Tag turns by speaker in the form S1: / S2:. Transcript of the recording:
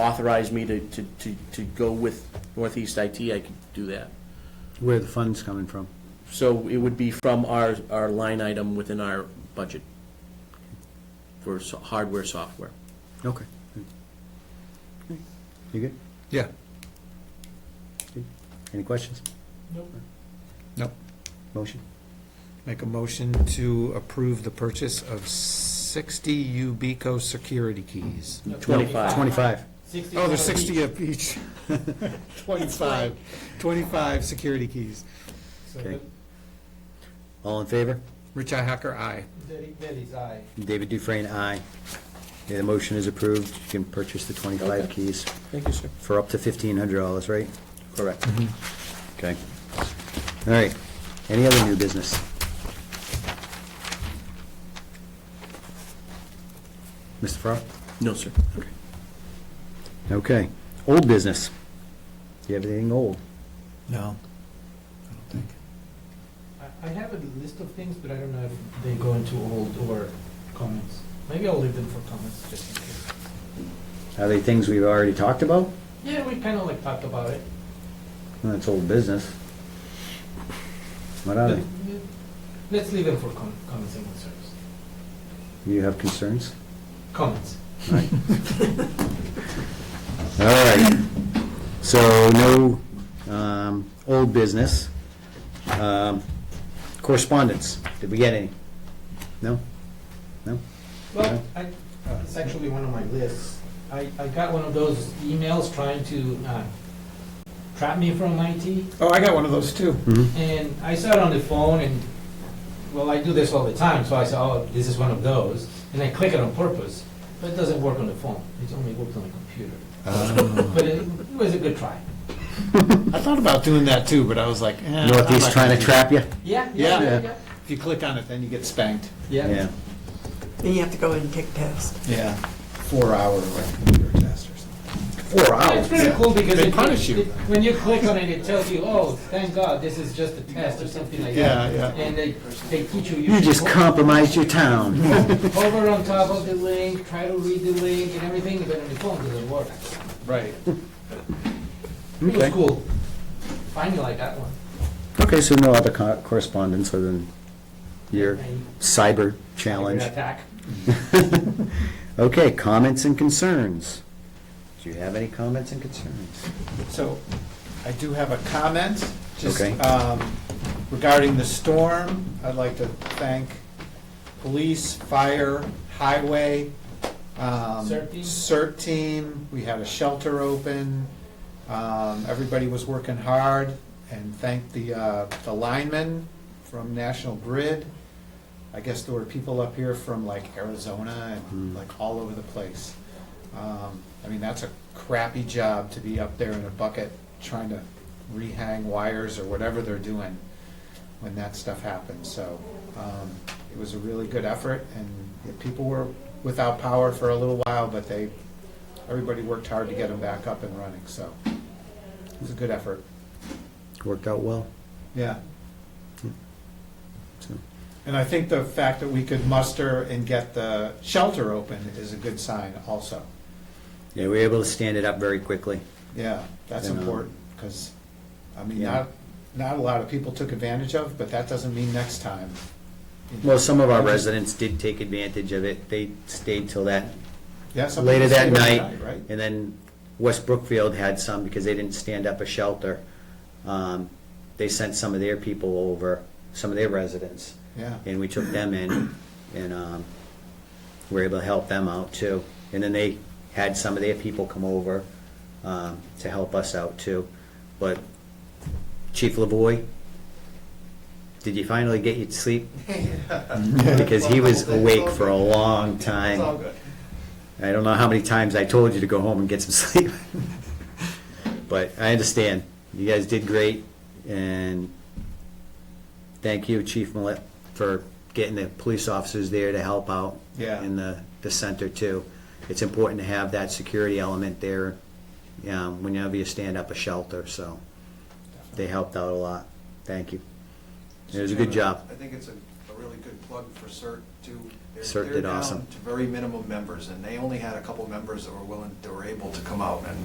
S1: authorize me to, to, to, to go with Northeast IT, I could do that.
S2: Where the fund's coming from.
S1: So it would be from our, our line item within our budget for so- hardware, software.
S2: Okay. You good?
S3: Yeah,
S2: Any questions?
S3: no.
S2: Motion?
S3: Make a motion to approve the purchase of 60 Ubico security keys.
S1: Twenty-five.
S2: Twenty-five.
S3: Oh, there's 60 of each. 25, 25 security keys.
S2: Okay. All in favor?
S3: Rich Hacker, aye.
S2: David Dufresne, aye. Okay, the motion is approved. You can purchase the twenty-five
S1: Okay.
S2: keys
S1: Thank you, sir.
S2: for up to fifteen hundred dollars, right?
S1: Correct.
S2: Okay. All right. Any other new business? Mr. Farrar?
S1: No, sir.
S2: Okay. Old business. Do you have anything old?
S3: No.
S4: I- I have a list of things, but I don't know if they go into old or comments. Maybe I'll leave them for comments, just in case.
S2: Are they things we've already talked about?
S4: Yeah, we kind of like talked about it.
S2: Well, That's old business. What are they?
S4: Let's leave them for com- comments and concerns.
S2: You have concerns?
S4: Comments.
S2: All right. So no um, old business. Um, Correspondence, did we get any? No? No?
S4: Well, I, uh, it's actually one of my lists. I, I got one of those emails trying to uh, trap me from IT,
S3: Oh, I got one of those too.
S2: Mhm.
S4: and I saw it on the phone, and, well, I do this all the time, so I said, oh, this is one of those, and I click it on purpose, but it doesn't work on the phone. It only works on the computer.
S3: Ah.
S4: But it it was a good try.
S3: I thought about doing that too, but I was like, eh. I'm
S2: Northeast
S3: not
S2: trying to
S3: gonna
S2: trap you?
S4: Yeah,
S3: yeah,
S4: yeah,
S3: Yeah.
S4: yeah.
S3: do it. If you click on it, then you get spanked.
S2: Yeah.
S5: Then you have to go in and take tests.
S3: Yeah. Four hour like computer test or something.
S2: Four
S4: It's pretty cool because
S3: They
S4: it-
S3: punish you.
S4: it- When you click on it, it tells you, oh, thank God, this is just a test or something like
S3: Yeah,
S4: that.
S3: yeah.
S4: And they, they teach you.
S2: You
S4: should
S2: just
S4: ho-
S2: compromised your town.
S4: Hover on top of the link, try to read the link and everything, but on the phone doesn't work.
S3: Right.
S4: It was
S2: Okay.
S4: cool. Finally like that one.
S2: Okay, so no other co- correspondence other than your
S4: And-
S2: cyber challenge.
S4: Attack.
S2: Okay, comments and concerns. Do you have any comments and concerns?
S3: So I do have a comment, just
S2: Okay.
S3: um, regarding the storm. I'd like to thank police, fire, highway. um,
S4: CERT team?
S3: CERT team. We had a shelter open. Um, Everybody was working hard and thank the, uh, the linemen from National Grid. I guess there were people up here from like Arizona and
S2: Hmm.
S3: like all over the place. Um, I mean, that's a crappy job to be up there in a bucket trying to rehang wires or whatever they're doing when that stuff happens. So um, it was a really good effort, and the people were without power for a little while, but they everybody worked hard to get them back up and running. So it was a good effort.
S2: Worked out well?
S3: Yeah.
S2: So-
S3: And I think the fact that we could muster and get the shelter open is a good sign also.
S2: Yeah, we were able to stand it up very quickly.
S3: Yeah, that's
S2: Then, um,
S3: important, because, I mean,
S2: Yeah.
S3: not, not a lot of people took advantage of, but that doesn't mean next time.
S2: Well, some of our residents did take advantage of it. They stayed till that,
S3: Yeah, some
S2: later
S3: people
S2: that
S3: stayed
S2: night.
S3: overnight, Right?
S2: And then West Brookfield had some because they didn't stand up a shelter. Um, They sent some of their people over, some of their residents,
S3: Yeah,
S2: and we took them in and um, were able to help them out too. And then they had some of their people come over um, to help us out too. But Chief LaVoy, did you finally get you to sleep? Because he was awake for a long time. I don't know how many times I told you to go home and get some sleep. But I understand. You guys did great, and thank you, Chief Millet, for getting the police officers there to help out.
S3: Yeah.
S2: In the, the center too. It's important to have that security element there, um, whenever you stand up a shelter, so they helped out a lot. Thank you. It was a good job.
S6: I think it's a a
S3: really good plug for CERT too. They're-
S2: CERT
S3: they're
S2: did
S3: down
S2: awesome.
S3: To very minimum members, and they only had a couple members that were willing, that were able to come out and